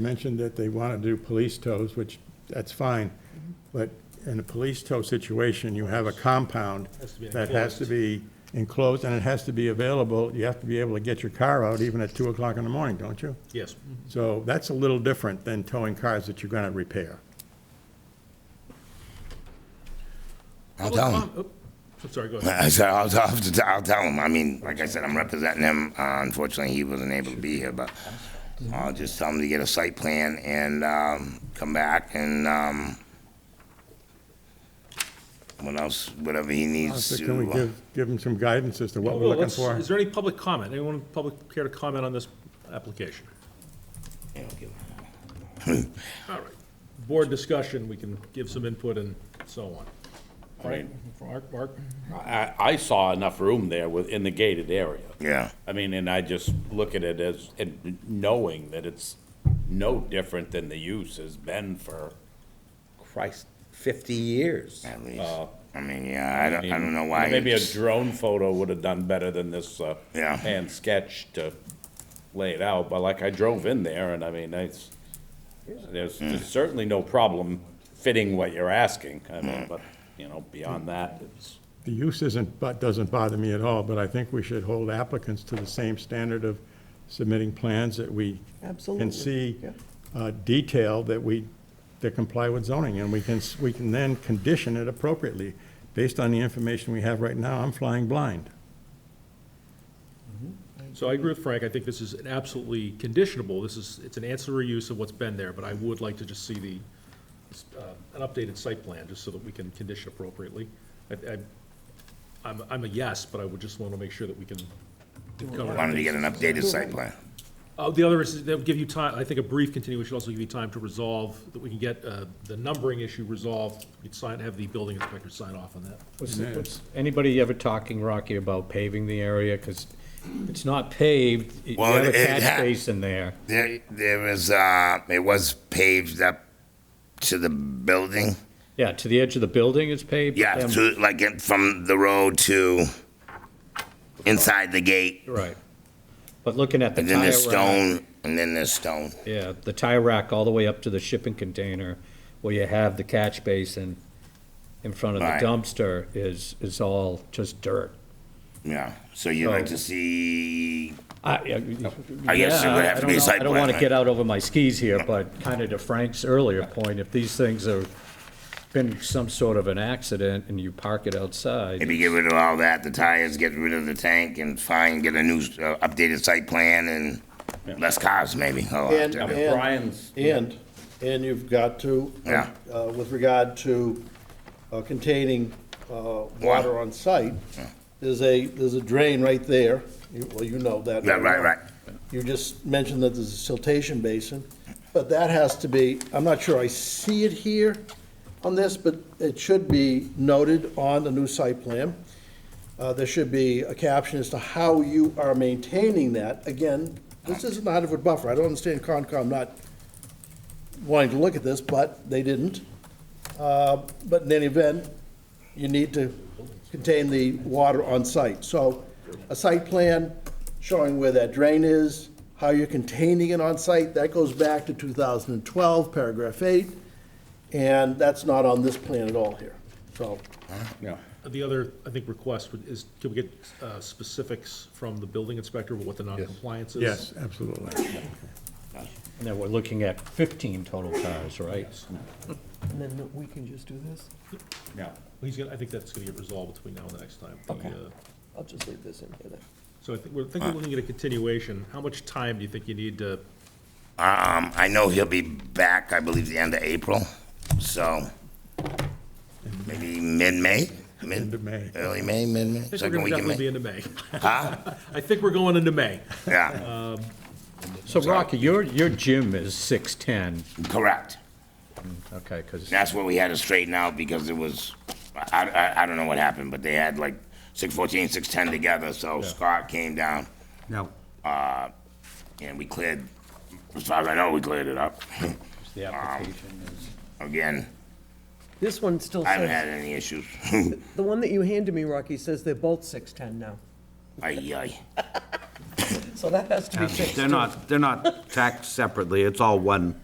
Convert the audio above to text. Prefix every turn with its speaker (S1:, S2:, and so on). S1: mentioned that they want to do police tows, which, that's fine,
S2: Mm-hmm.
S1: but in a police tow situation, you have a compound
S2: Has to be
S1: that has to be enclosed, and it has to be available, you have to be able to get your car out even at two o'clock in the morning, don't you?
S2: Yes.
S1: So that's a little different than towing cars that you're going to repair.
S3: I'll tell him.
S2: oh, I'm sorry, go ahead.
S3: I said, I'll, I'll, have to t- I'll tell him. I mean, like I said, I'm representing him. Uh, unfortunately, he wasn't able to be here, but I'll just tell him to get a site plan and um, come back and um, what else, whatever he needs
S1: So
S3: to. uh,
S1: can we give, give them some guidance as to what we're
S2: Well,
S1: looking
S2: let's-
S1: for?
S2: Is there any public comment? Anyone in the public care to comment on this application?
S3: Yeah, I'll give-
S2: All right. Board discussion, we can give some input and so on. All right, Mark, Mark?
S4: I, I saw enough room there within the gated area.
S3: yeah.
S4: I mean, and I just look at it as, and knowing that it's no different than the use has been for, Christ, fifty years.
S3: At least. I mean, yeah, I don't, I don't know why.
S4: Uh, Maybe a
S3: it's-
S4: drone photo would have done better than this, uh,
S3: Yeah.
S4: hand sketch to lay it out, but like I drove in there and I mean, it's, there's
S3: Hmm.
S4: there's certainly no problem fitting what you're asking, I
S3: Hmm.
S4: mean, but, you know, beyond that, it's.
S1: The use isn't, but doesn't bother me at all, but I think we should hold applicants to the same standard of submitting plans that we can
S5: Absolutely,
S1: see
S5: yeah.
S1: uh, detail that we, that comply with zoning, and we can, s- we can then condition it appropriately. Based on the information we have right now, I'm flying blind.
S2: So I agree with Frank, I think this is an absolutely conditionable, this is, it's an ancillary use of what's been there, but I would like to just see the, uh, an updated site plan, just so that we can condition appropriately. I, I, I'm, I'm a yes, but I would just want to make sure that we can. cover it.
S3: Wanted to get an updated site plan.
S2: Uh, the other is, that would give you time, I think a brief continuation should also give you time to resolve, that we can get, uh, the numbering issue resolved, we can sign, have the building inspector sign off on that.
S6: Was, was anybody ever talking, Rocky, about paving the area? Because it's not paved, you
S3: Well,
S6: have a
S3: it- it ha-
S6: catch basin there.
S3: There, there was, uh, it was paved up to the building.
S6: Yeah, to the edge of the building it's paved. but
S3: Yeah,
S6: then-
S3: to, like it- from the road to inside the gate,
S6: Right. But looking at the
S3: and then
S6: tire
S3: there's
S6: rack,
S3: stone, and then there's stone.
S6: yeah, the tire rack all the way up to the shipping container, where you have the catch basin in front of the
S3: Right.
S6: dumpster is, is all just dirt.
S3: Yeah, so you'd like
S6: So-
S3: to see,
S6: I, I
S3: I guess it
S6: yeah,
S3: would
S6: I-
S3: have to
S6: I don't
S3: be a
S6: know.
S3: site
S6: I don't
S3: plan,
S6: want to
S3: right?
S6: get out over my skis here, but kind of to Frank's earlier point, if these things have been some sort of an accident and you park it outside,
S3: maybe get rid of all that, the tires, get rid of the tank, and find, get a new, uh, updated site plan, and less cars, maybe. Oh,
S5: And,
S3: after-
S5: and-
S4: Brian's-
S5: And, and you've got to,
S3: Yeah.
S5: uh, with regard to uh, containing uh, water on site, there's a, there's a drain right there, You- well, you know that.
S3: Yeah, right,
S5: now.
S3: right.
S5: You just mentioned that there's a siltation basin, but that has to be, I'm not sure I see it here on this, but it should be noted on the new site plan. Uh, There should be a caption as to how you are maintaining that. Again, this isn't a hundred-foot buffer. I don't understand Concom not wanting to look at this, but they didn't. Uh, But in any event, you need to contain the water on site. So a site plan showing where that drain is, how you're containing it on site, that goes back to 2012, paragraph eight, and that's not on this plan at all here. So
S2: Uh, The other, I think, request would- is, can we get uh, specifics from the building inspector about what the noncompliance is?
S1: Yes, absolutely.
S6: and then we're looking at fifteen total cars, right?
S5: And then we can just do this?
S4: Yeah.
S2: He's gonna, I think that's gonna get resolved between now and the next time. The,
S5: Okay.
S2: uh,
S5: I'll just leave this in here then.
S2: So I think, we're, I think we're looking at a continuation. How much time do you think you need to,
S3: Um, I know he'll be back, I believe, the end of April, so maybe mid-May? Mid-
S1: End of May.
S3: Early May, mid-May?
S2: I think we're
S3: Second
S2: gonna
S3: week in
S2: definitely be
S3: May?
S2: into May.
S3: Huh?
S2: I think we're going into May.
S3: Yeah,
S6: So Rocky, your, your gym is six-ten,
S3: correct.
S6: okay, because,
S3: That's what we had to straighten out because it was, I, I, I don't know what happened, but they had like six fourteen, six ten together, so Scott came down.
S6: now,
S3: And we cleared, as far as I know, we cleared it up.
S6: the application is.
S3: Again,
S7: This one still
S3: I haven't
S7: says,
S3: had any issues.
S7: the one that you handed me, Rocky, says they're both 610 now.
S3: Ay, ay.
S7: so that has to be fixed.
S4: They're
S7: too.
S4: not, they're not taxed separately, it's all one.